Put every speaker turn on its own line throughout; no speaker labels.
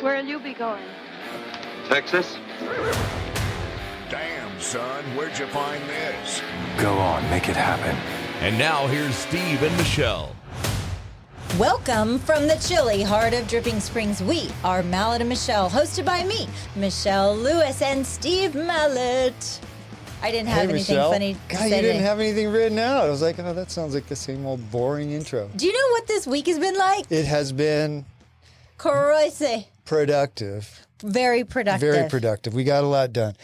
Where'll you be going?
Texas?
Damn, son, where'd you find this?
Go on, make it happen.
And now here's Steve and Michelle.
Welcome from the chilly heart of Dripping Springs. We are Mallet and Michelle, hosted by me, Michelle Lewis, and Steve Mallet. I didn't have anything funny to
God,
say.
you didn't
today.
have anything written out. I was like, oh, that sounds like the same old boring intro.
Do you know what this week has been like?
It has been
Crazy.
productive,
Very productive.
very productive. We got a lot done.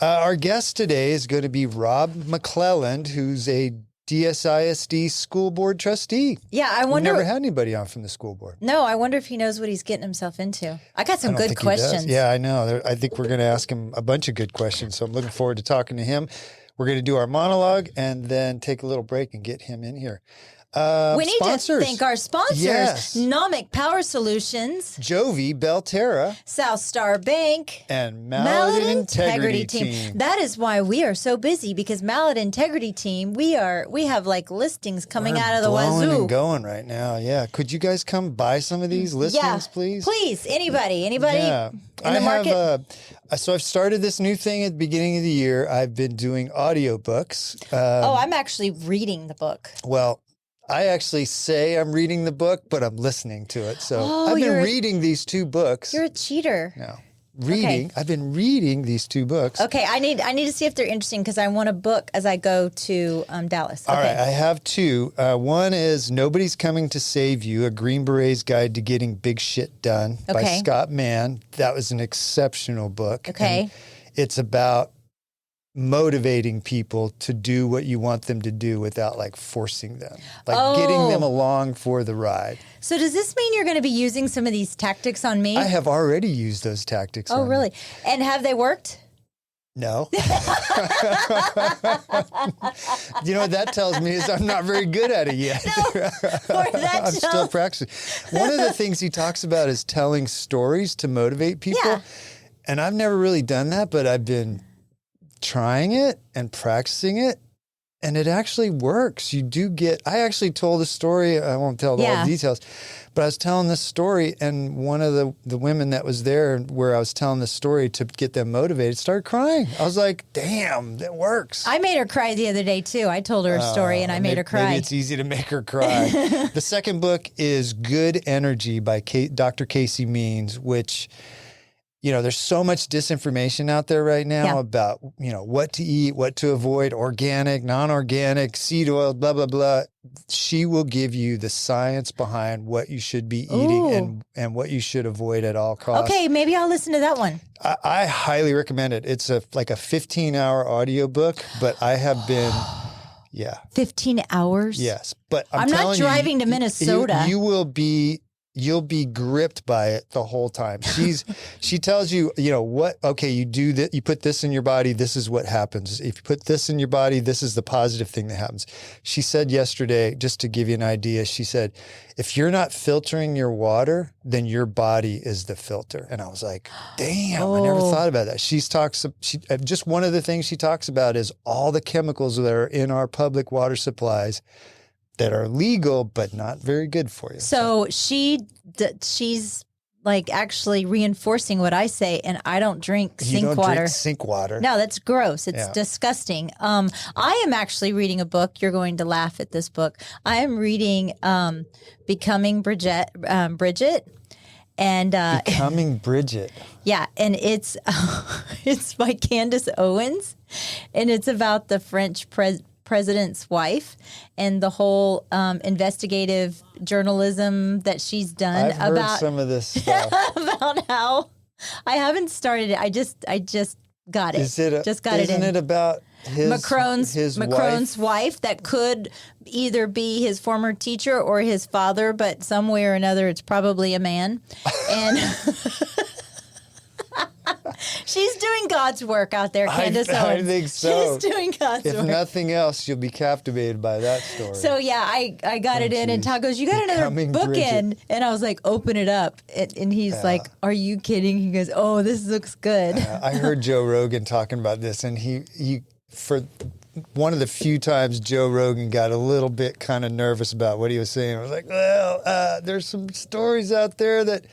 Uh, our guest today is going to be Rob McClelland, who's a DSISD school board trustee.
Yeah, I
We've
wonder.
never had anybody on from the school board.
no, I wonder if he knows what he's getting himself into. I got
I
some
don't
good
think he does.
questions.
Yeah, I know. There- I think we're going to ask him a bunch of good questions. So I'm looking forward to talking to him. We're going to do our monologue and then take a little break and get him in here. Uh,
we need
sponsors.
to thank our sponsors:
Yes.
Nomic Power Solutions,
Jovi, Belterra,
South Star Bank,
and Mallet, Integrity, Team.
That is why we are so busy because Mallet Integrity Team, we are we have like listings coming
We're
out of the
blowing
wazoo.
and going right now. Yeah. Could you guys come buy some of these listings,
yeah,
please?
Please, anybody, anybody
Yeah. um,
in the
I
market.
have uh, so I've started this new thing at the beginning of the year. I've been doing audiobooks. Uh,
oh, I'm actually reading the book.
well, I actually say I'm reading the book, but I'm listening to it. So
Oh,
I've
you're
been
a-
reading these two books.
You're a cheater.
no. Reading. I've been reading these two books.
Okay, I need I need to see if they're interesting because I want a book as I go to um, Dallas.
All right,
okay.
I have two. Uh, one is Nobody's Coming to Save You, A Green Beret's Guide to Getting Big Shit Done by
Okay.
Scott Mann. That was an exceptional book.
Okay.
And it's about motivating people to do what you want them to do without like forcing them, like getting them
Oh.
along for the ride.
so does this mean you're going to be using some of these tactics on me?
I have already used those tactics.
oh,
on you.
really? And have they worked?
No. you know what that tells me is I'm not very good at it yet.
Or that
I'm still
tells-
practicing. One of the things he talks about is telling stories to motivate people.
Yeah.
And I've never really done that, but I've been trying it and practicing it. And it actually works. You do get. I actually told a story. I won't tell all
Yeah.
the details, but I was telling this story, and one of the, the women that was there, where I was telling the story to get them motivated, started crying. I was like, "Damn, that works."
I made her cry the other day too. I told her a story and I made
Uh, May-
her cry.
Maybe it's easy to make her cry. the second book is Good Energy by Ka- Dr. Casey Means, which you know, there's so much disinformation out there right now
Yeah.
about, you know, what to eat, what to avoid, organic, non-organic, seed oil, blah blah blah. She will give you the science behind what you should be eating
Ooh.
and and what you should avoid at all costs.
Okay, maybe I'll listen to that one.
I, I highly recommend it. It's a like a 15-hour audiobook, but I have been yeah.
15 hours?
Yes, but I'm,
I'm not
telling you,
driving to
you-
Minnesota.
You, will be you'll be gripped by it the whole time. She's she tells you, you know, what okay, you do that you put this in your body, this is what happens. If you put this in your body, this is the positive thing that happens. She said yesterday, just to give you an idea, she said, if you're not filtering your water, then your body is the filter. And I was like, damn, I never
Oh.
thought about that. She's talks she uh, just one of the things she talks about is all the chemicals that are in our public water supplies that are legal but not very good for you.
So she d- she's like actually reinforcing what I say and I don't drink
you
sink
don't
water.
drink sink water.
no, that's gross. It's
Yeah.
disgusting. Um, I am actually reading a book. You're going to laugh at this book. I am reading um, "Becoming Bridget." Um, Bridget, and uh,
Becoming Bridget.
Yeah, and it's it's by Candace Owens, and it's about the French pres- president's wife and the whole um, investigative journalism that she's done
I've heard
about
some of this stuff.
about how I haven't started it. I just I just got it.
Is it a,
just got
isn't
it in.
it about his
Macron's
his
Macron's
wife?
wife. that could either be his former teacher or his father, but some way or another, it's probably a man. And she's doing God's work out there,
I-
Candace.
I
Owens.
think so.
She's doing God's
If
work.
nothing else, you'll be captivated by that story.
so yeah, I, I got
Oh,
it in, and
geez.
Todd goes, "You got another
Becoming
bookend,"
Bridget.
and I was like, "Open it up," and, and he's like, "Are you kidding?" He goes, "Oh, this looks good."
Uh, I heard Joe Rogan talking about this, and he he for one of the few times Joe Rogan got a little bit kind of nervous about what he was saying. I was like, well, uh, there's some stories out there that